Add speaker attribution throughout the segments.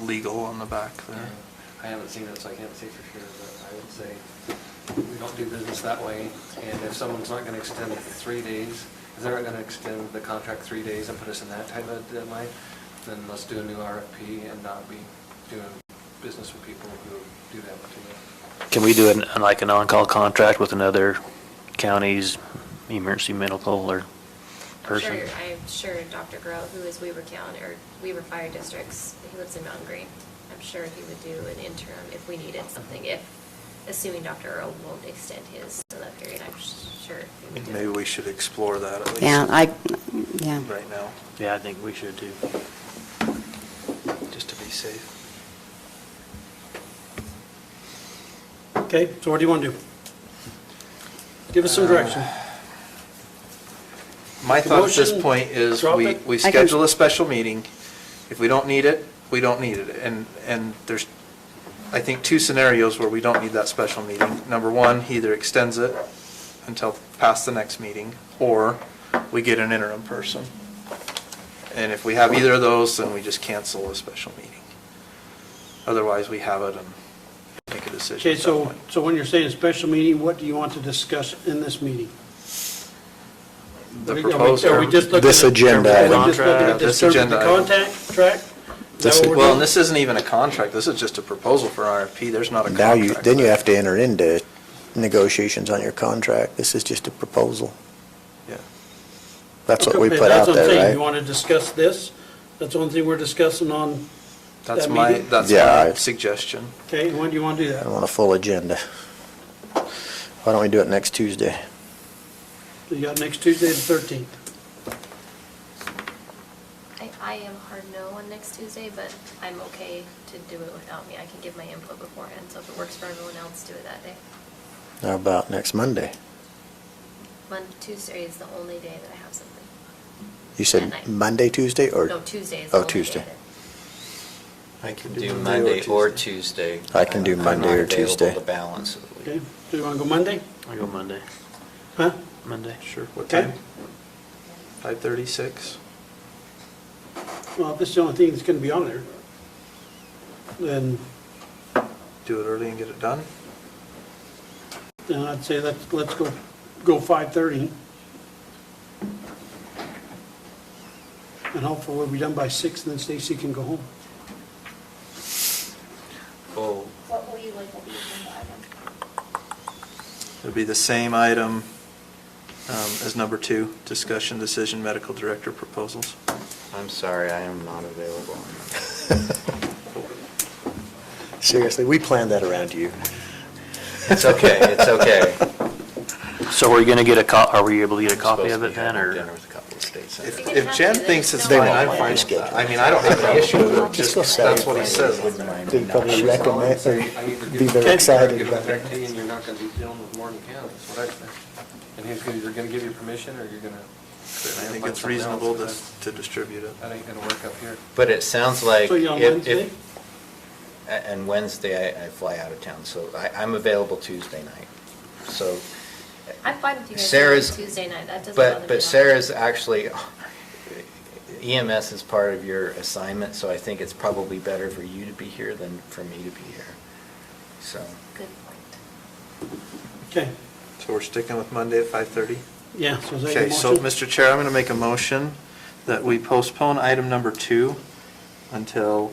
Speaker 1: legal on the back there.
Speaker 2: I haven't seen it, so I can't say for sure, but I would say we don't do business that way. And if someone's not gonna extend it three days, if they're not gonna extend the contract three days and put us in that type of deadline, then let's do a new RFP and not be doing business with people who do that to
Speaker 3: Can we do an, like an on-call contract with another county's emergency medical or
Speaker 4: I'm
Speaker 3: person?
Speaker 4: sure, I'm sure Dr. Grow, who is Weaver County, or Weaver Fire Districts, he lives in Mountain Green. I'm sure he would do an interim if we needed something, if, assuming Dr. Earl won't extend his in that period, I'm sure he would do it.
Speaker 1: Maybe we should explore that at least.
Speaker 5: Yeah, I, yeah.
Speaker 1: Right now,
Speaker 3: Yeah, I think we should too.
Speaker 1: just to be safe.
Speaker 6: Okay, so what do you want to do? Give
Speaker 7: Uh,
Speaker 6: us some direction.
Speaker 1: Uh, My
Speaker 6: The
Speaker 1: thought at this
Speaker 6: motion,
Speaker 1: point is
Speaker 6: drop
Speaker 1: we,
Speaker 6: it.
Speaker 1: we
Speaker 5: I can-
Speaker 1: schedule a special meeting. If we don't need it, we don't need it. And, and there's, I think, two scenarios where we don't need that special meeting. Number one, he either extends it until past the next meeting, or we get an interim person. And if we have either of those, then we just cancel a special meeting. Otherwise, we have it and make a decision
Speaker 6: Okay,
Speaker 1: at that
Speaker 6: so,
Speaker 1: point.
Speaker 6: so when you're saying special meeting, what do you want to discuss in this meeting?
Speaker 1: The
Speaker 6: Are we- are we-
Speaker 1: proposed.
Speaker 6: Are we just looking at?
Speaker 7: This agenda
Speaker 6: Are
Speaker 7: item.
Speaker 6: we just looking at the
Speaker 1: This
Speaker 6: service,
Speaker 1: agenda
Speaker 6: the
Speaker 1: item.
Speaker 6: contact, track? Is that
Speaker 7: This-
Speaker 6: what we're
Speaker 1: Well,
Speaker 6: doing?
Speaker 1: and this isn't even a contract, this is just a proposal for RFP, there's not a
Speaker 7: Now
Speaker 1: contract.
Speaker 7: you, then you have to enter into negotiations on your contract. This is just a proposal.
Speaker 1: Yeah.
Speaker 7: That's what we
Speaker 6: Okay,
Speaker 7: put
Speaker 6: that's what
Speaker 7: out
Speaker 6: I'm saying.
Speaker 7: there,
Speaker 6: You
Speaker 7: right?
Speaker 6: want to discuss this? That's the only thing we're discussing on,
Speaker 1: That's
Speaker 6: That
Speaker 1: my,
Speaker 6: meeting?
Speaker 1: that's
Speaker 7: Yeah,
Speaker 1: my
Speaker 7: I-
Speaker 1: suggestion.
Speaker 6: okay, when do you want to do
Speaker 7: I
Speaker 6: that?
Speaker 7: want a full agenda. Why don't we do it next Tuesday?
Speaker 6: You got next Tuesday, the 13th.
Speaker 4: I, I am hard no on next Tuesday, but I'm okay to do it without me, I can give my input beforehand, so if it works for everyone else, do it that day.
Speaker 7: How about next Monday?
Speaker 4: Monday, Tuesday is the only day that I have something.
Speaker 7: You
Speaker 4: At
Speaker 7: said
Speaker 4: night.
Speaker 7: Monday, Tuesday, or?
Speaker 4: No, Tuesday is the
Speaker 7: Oh,
Speaker 4: only day
Speaker 7: Tuesday.
Speaker 4: that-
Speaker 8: I can do Monday or Tuesday.
Speaker 7: I can do
Speaker 8: I'm
Speaker 7: Monday
Speaker 8: not
Speaker 7: or
Speaker 8: available
Speaker 7: Tuesday.
Speaker 8: the balance of the week.
Speaker 6: Okay, do you want to go Monday?
Speaker 3: I go Monday,
Speaker 6: Huh?
Speaker 3: Monday.
Speaker 1: Sure. What
Speaker 6: Okay.
Speaker 1: time? 5:36?
Speaker 6: Well, if this is the only thing that's going to be on there, then,
Speaker 1: Do it early and get it done?
Speaker 6: then I'd say let's, let's go, go 5:30. And hopefully we'll be done by 6, and then Stacy can go home.
Speaker 8: Oh,
Speaker 9: What will you look at the agenda item?
Speaker 1: It'll be the same item um, as number two, discussion, decision, medical director proposals.
Speaker 8: I'm sorry, I am not available.
Speaker 7: Seriously, we planned that around you.
Speaker 8: It's okay, it's okay.
Speaker 3: So are you gonna get a co, are we able to get a
Speaker 8: I'm
Speaker 3: copy
Speaker 8: supposed
Speaker 3: of
Speaker 8: to
Speaker 3: it
Speaker 8: be
Speaker 3: then,
Speaker 8: having
Speaker 3: or?
Speaker 8: Dinner with a couple of states.
Speaker 1: If
Speaker 4: You can
Speaker 1: if
Speaker 4: have
Speaker 1: Jen
Speaker 4: it, there's
Speaker 1: thinks it's
Speaker 4: no-
Speaker 1: fine, I'm fine with that. I mean, I don't have any issue with it, just,
Speaker 7: go sell
Speaker 1: that's
Speaker 7: it.
Speaker 1: what he says.
Speaker 8: Wouldn't mind
Speaker 7: They'd
Speaker 8: me
Speaker 7: probably
Speaker 8: not.
Speaker 7: recommend,
Speaker 2: I either
Speaker 7: or
Speaker 2: give
Speaker 7: be
Speaker 2: them-
Speaker 7: very excited
Speaker 2: give them
Speaker 7: about it.
Speaker 2: directly and you're not gonna be dealing with Morgan County, that's what I think. And he's gonna, either gonna give you permission, or you're gonna.
Speaker 1: I think it's reasonable to, to distribute it.
Speaker 2: That ain't gonna work up here.
Speaker 8: But it sounds like
Speaker 6: So you're on
Speaker 8: if,
Speaker 6: Wednesday?
Speaker 8: if, a- and Wednesday I, I fly out of town, so I, I'm available Tuesday night. So,
Speaker 4: I'm fine with you guys doing it
Speaker 8: Sarah's-
Speaker 4: Tuesday night, that doesn't bother me
Speaker 8: but,
Speaker 4: at all.
Speaker 8: but Sarah's actually, EMS is part of your assignment, so I think it's probably better for you to be here than for me to be here. So,
Speaker 4: Good point.
Speaker 6: Okay,
Speaker 1: So we're sticking with Monday at 5:30?
Speaker 6: yeah, so is that your
Speaker 1: Okay, so,
Speaker 6: motion?
Speaker 1: Mr. Chair, I'm going to make a motion that we postpone item number two until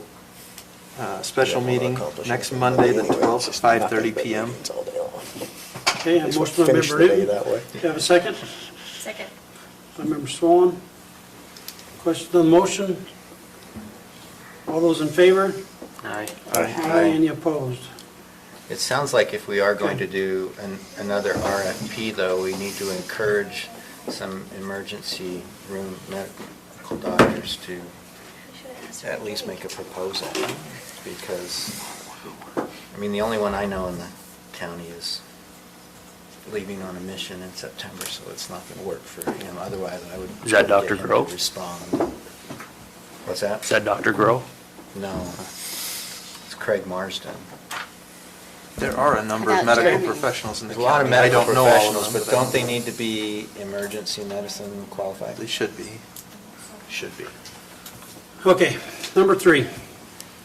Speaker 1: uh, special meeting next Monday, the 12th, at 5:30 PM.
Speaker 6: Okay, a
Speaker 7: At least we'll
Speaker 6: motion by
Speaker 7: finish
Speaker 6: member
Speaker 7: the day
Speaker 6: Newton.
Speaker 7: that way.
Speaker 6: Do you have a second?
Speaker 4: Second.
Speaker 6: By member Swan. Question on the motion? All those in favor?
Speaker 3: Aye.
Speaker 6: Any opposed?
Speaker 8: It sounds like if we are going
Speaker 6: Okay.
Speaker 8: to do an- another RFP, though, we need to encourage some emergency room medical doctors to at least make a proposal, because, I mean, the only one I know in the county is leaving on a mission in September, so it's not going to work for him, otherwise I would.
Speaker 3: Is that Dr.
Speaker 8: get him to
Speaker 3: Grove?
Speaker 8: Respond. What's that?
Speaker 3: Is that Dr. Grow?
Speaker 8: No, it's Craig Marsden.
Speaker 1: There are a number of
Speaker 5: About
Speaker 1: medical
Speaker 5: Germany.
Speaker 1: professionals in the
Speaker 8: There's a lot of
Speaker 1: county. I
Speaker 8: medical
Speaker 1: don't know all of
Speaker 8: professionals,
Speaker 1: them,
Speaker 8: but don't they need to be emergency medicine qualified?
Speaker 1: They should be.
Speaker 8: Should be.
Speaker 6: Okay, number three.